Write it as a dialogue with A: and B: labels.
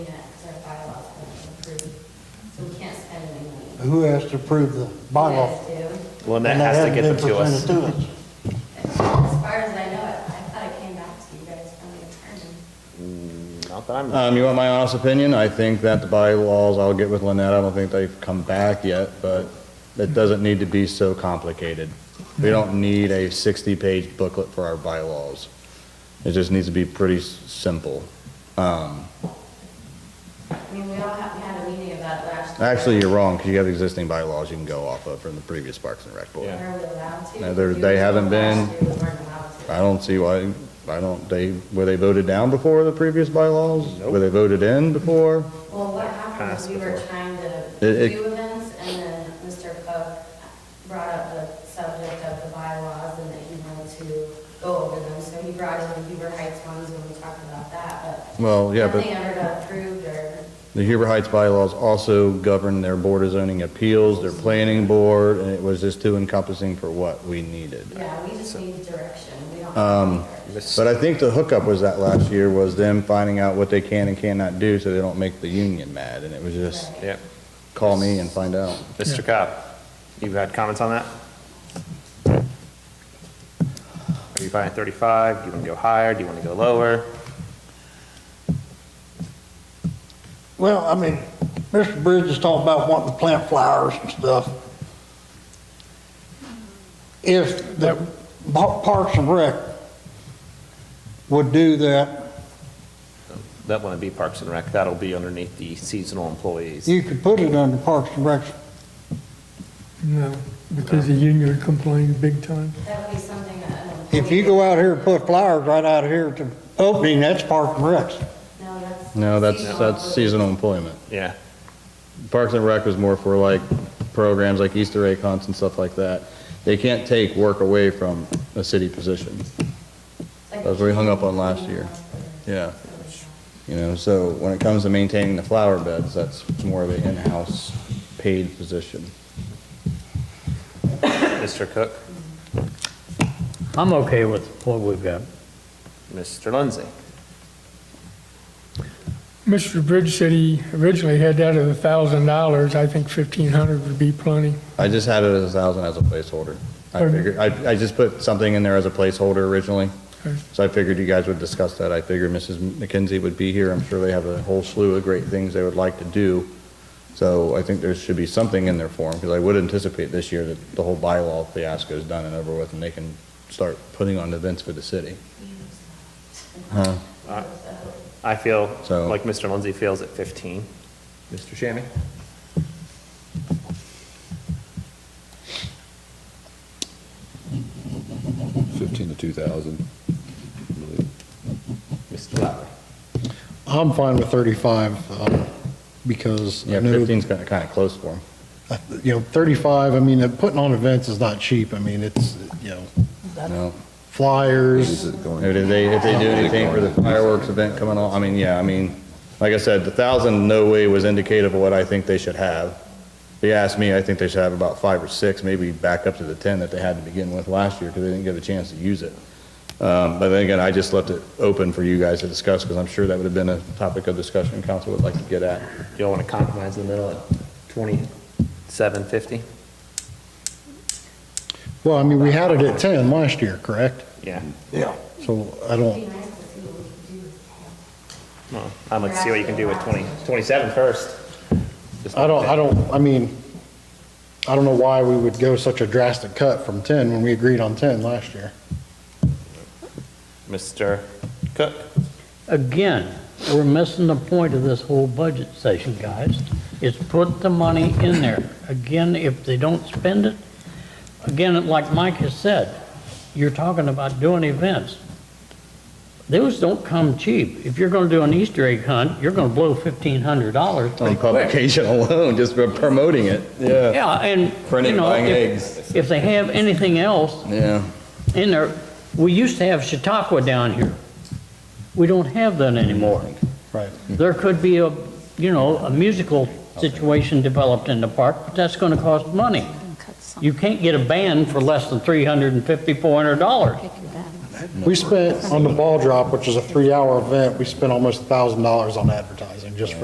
A: who has to approve the bylaw?
B: Yes,
C: Well, and that
A: And that
C: has to get them
A: hasn't
C: to
A: been
C: us.
A: presented to us.
B: do. As far as I know, it- I thought it came back to you guys from the attorney.
C: Not that I'm,
D: Um, you want my honest opinion? I think that the bylaws, I'll get with Lynette, I don't think they've come back yet, but it doesn't need to be so complicated. We don't need a sixty-page booklet for our bylaws. It just needs to be pretty s- simple. Um,
B: I mean, we all have, we had a meeting about it last year.
D: actually, you're wrong, because you have existing bylaws you can go off of from the previous Parks and Rec board.
B: Were we allowed to?
D: No, they're-
B: We
D: they
B: were
D: haven't been-
B: Last year, we weren't allowed to.
D: I don't see why, I don't, they, were they voted down before the previous bylaws? Were they voted in before?
B: Well, what happened was
C: Passed
B: we were
C: before.
B: trying to
D: It- it-
B: do events, and then Mr. Cook brought up the subject of the bylaws and that he wanted to go over them, so he brought in the Huber Heights ones when we talked about that, but
D: Well, yeah, but.
B: nothing ever got approved or,
D: The Huber Heights bylaws also govern their Board of Zoning Appeals, their Planning Board, and it was just too encompassing for what we needed.
B: yeah, we just need direction, we don't
D: Um,
B: have any direction.
D: But I think the hookup was that last year was them finding out what they can and cannot do so they don't make the union mad, and it was just,
B: Right.
C: yeah.
D: call me and find out.
C: Mr. Cobb, you had comments on that? Are you fine at 35? Do you want to go higher? Do you want to go lower?
A: Well, I mean, Mr. Bridges talked about wanting to plant flowers and stuff. If the Pa- Parks and Rec would do that,
C: That wouldn't be Parks and Rec. That'll be underneath the seasonal employees.
A: you could put it under Parks and Rec.
E: No, because the union complained big time.
B: That would be something that. an
A: If you
B: employee-
A: go out here and put flowers right out here to opening, that's Parks and Rec.
B: No, that's.
D: No, that's,
B: seasonal.
D: that's seasonal employment.
C: Yeah.
D: Parks and Rec was more for like programs like Easter egg hunts and stuff like that. They can't take work away from a city position.
B: It's like-
D: That's what we hung up on last year. Yeah. You know, so when it comes to maintaining the flower beds, that's more of an in-house paid position.
C: Mr. Cook,
F: I'm okay with what we've got.
C: Mr. Lindsay.
E: Mr. Bridge said he originally had that at a thousand dollars. I think fifteen hundred would be plenty.
D: I just had it as a thousand as a placeholder. I
E: Okay.
D: figured, I, I just put something in there as a placeholder originally.
E: Okay.
D: So I figured you guys would discuss that. I figured Mrs. McKenzie would be here. I'm sure they have a whole slew of great things they would like to do. So I think there should be something in their form, because I would anticipate this year that the whole bylaw fiasco is done and over with, and they can start putting on events for the city. Huh?
C: I feel
D: So-
C: like Mr. Lindsay feels at 15. Mr. Shammy?
G: Fifteen to two thousand.
C: Mr. Lowry?
H: I'm fine with 35, um, because I
D: Yeah,
H: know,
D: 15's kind of, kind of close for them.
H: you know, 35, I mean, uh, putting on events is not cheap. I mean, it's, you know,
D: No.
H: flyers,
G: Is it going?
D: If they, if they do anything for the fireworks event coming on, I mean, yeah, I mean, like I said, the thousand no way was indicative of what I think they should have. If you ask me, I think they should have about five or six, maybe back up to the 10 that they had to begin with last year because they didn't get a chance to use it. Um, But then again, I just left it open for you guys to discuss because I'm sure that would have been a topic of discussion council would like to get at.
C: Do you want to compromise in the middle at 2750?
H: well, I mean, we had it at 10 last year, correct?
C: Yeah.
A: Yeah.
H: So I
B: It'd
H: don't,
B: be nice to see what we could do with that.
C: Well, I'm gonna see what you can do with 20, 27 first. Just
H: I don't, I don't, I mean, I don't know why we would go such a drastic cut from 10 when we agreed on 10 last year.
C: Mr. Cook?
F: Again, we're missing the point of this whole budget session, guys. It's put the money in there. Again, if they don't spend it, again, like Mike has said, you're talking about doing events. Those don't come cheap. If you're gonna do an Easter egg hunt, you're gonna blow fifteen hundred dollars.
D: On publication alone, just for promoting it. Yeah.
F: Yeah, and,
D: Printing,
F: you know,
D: buying eggs.
F: if, if they have anything else,
D: Yeah.
F: in there, we used to have Chautauqua down here. We don't have that anymore.
H: Right.
F: There could be a, you know, a musical situation developed in the park, but that's gonna cost money. You can't get a band for less than three hundred and fifty, four hundred dollars.
H: We spent, on the ball drop, which is a three-hour event, we spent almost $1,000 on advertising just for